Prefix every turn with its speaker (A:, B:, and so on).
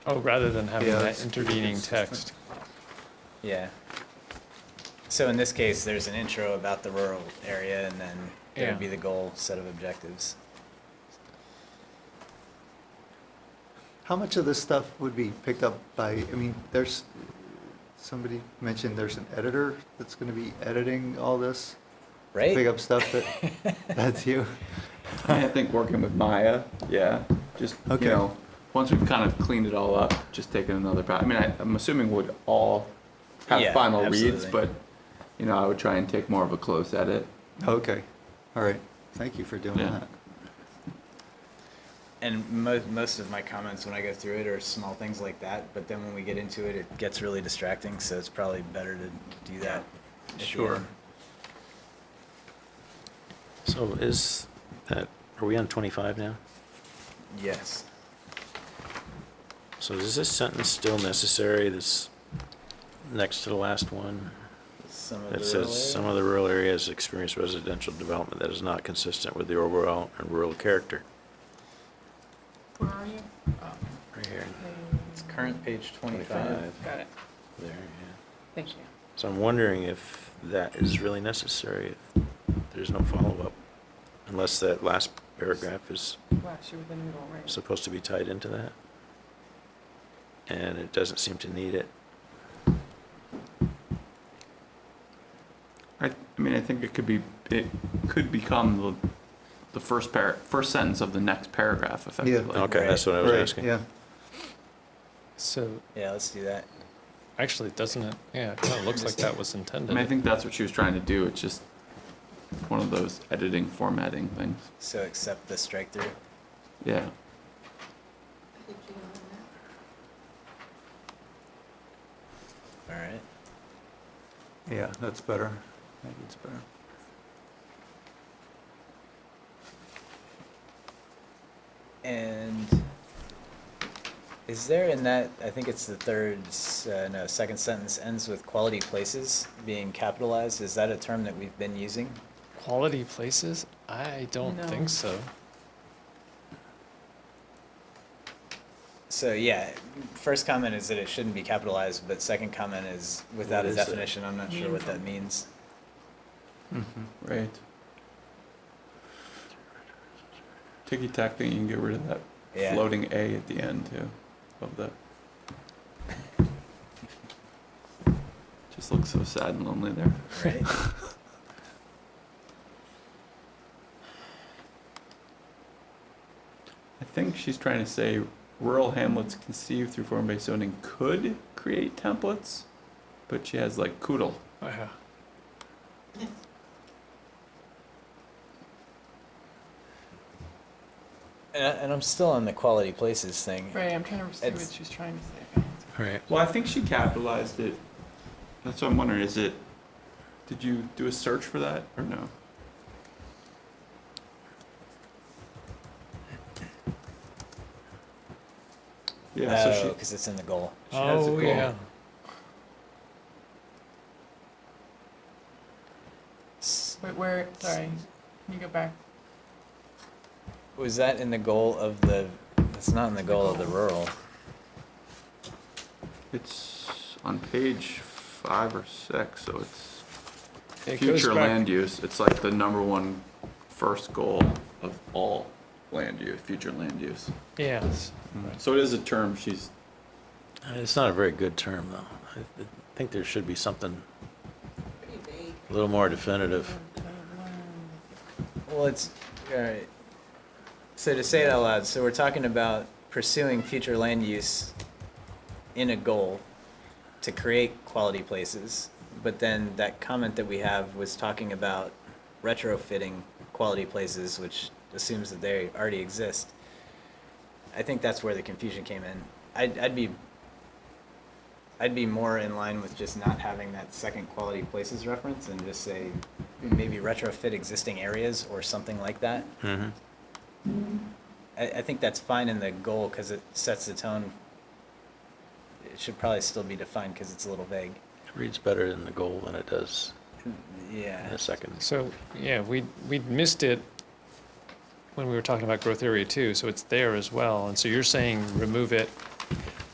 A: Oh, rather than having
B: Yeah,
A: that
B: that's-
A: intervening
B: it's- it's-
A: text.
C: Yeah. So in this case, there's an intro about the rural area and then
A: Yeah.
C: there'd be the goal set of objectives.
B: How much of this stuff would be picked up by, I mean, there's, somebody mentioned there's an editor that's gonna be editing all this?
C: Right?
B: Pick up stuff that, that's you?
D: I think working with Maya, yeah, just,
B: Okay.
D: you know, once we've kind of cleaned it all up, just taking another, pa- I mean, I, I'm assuming we'd all
C: Yeah,
D: have final reads,
C: absolutely.
D: but, you know, I would try and take more of a close edit.
B: Okay, all right, thank you for doing
D: Yeah.
B: that.
C: And most most of my comments when I go through it are small things like that, but then when we get into it, it gets really distracting. So it's probably better to do that. at the end.
E: So is that, are we on 25 now?
C: Yes.
E: So is this sentence still necessary, this next to the last one?
C: Some of
E: That
C: the
E: says,
C: rural
E: some
C: area.
E: of the rural areas experience residential development that is not consistent with the overall and rural character.
F: Where are you?
E: Right here,
C: It's current page 25.
E: 25,
F: Got it.
E: there, yeah.
F: Thank you.
E: So I'm wondering if that is really necessary, if there's no follow-up, unless that last paragraph is
F: Wow, she was in the middle, right?
E: supposed to be tied into that. And it doesn't seem to need it.
D: I, I mean, I think it could be, it could become the, the first par, first sentence of the next paragraph effectively.
E: Okay, that's what I was
B: Right,
E: asking.
B: Yeah,
A: So,
C: Yeah, let's do that.
A: actually, doesn't it, yeah, it kind of looks like that was
D: I mean, I
A: intended.
D: think that's what she was trying to do, it's just one of those editing formatting things,
C: So accept the strike through.
D: yeah.
C: All right.
B: yeah, that's better, Maybe it's better.
C: And is there in that, I think it's the third, s- uh, no, second sentence ends with quality places being capitalized. Is that a term that we've been using?
A: Quality places? I don't
F: No.
A: think so.
C: So yeah, first comment is that it shouldn't be capitalized, but second comment is without
E: What
C: a
E: is it?
C: definition, I'm not sure what that means.
B: Mm-hmm.
D: Right. Ticky tack thing, you can get rid of that
C: Yeah.
D: floating A at the end too of the. Just looks so sad and lonely there.
C: Right?
D: I think she's trying to say rural hamlets conceived through form-based zoning could create templates, but she has like coodle.
A: Yeah.
C: And, I- and I'm still on the quality places thing.
F: Right, I'm trying to see what
C: It's-
F: she's trying to say.
E: All right.
D: Well, I think she capitalized it. That's what I'm wondering. Is it? Did you do a search for that or no? Yeah. so she,
C: because Oh, it's in the goal.
D: She has a
A: Oh,
D: goal.
A: yeah.
C: S-
F: Wait, where, sorry, can you go back?
C: Was that in the goal of the, it's not in the goal of the rural.
D: It's on page five or six, so it's
A: It goes
D: future
A: back-
D: land use. It's like the number one first goal of all land use, future land use.
A: Yes.
D: So it is a term she's.
E: It's not a very good term, though. I I think there should be something a little more definitive.
C: Well, it's, all right. So to say it out loud, so we're talking about pursuing future land use in a goal to create quality places. But then that comment that we have was talking about retrofitting quality places, which assumes that they already exist. I think that's where the confusion came in. I'd, I'd be, I'd be more in line with just not having that second quality places reference and just say maybe retrofit existing areas or something like that.
E: Mhm.
C: I, I think that's fine in the goal because it sets the tone. It should probably still be defined because it's a little vague.
E: It reads better in the goal than it does in
C: Yeah.
E: the second.
A: So, yeah, we, we missed it when we were talking about growth area two, so it's there as well. And so you're saying remove it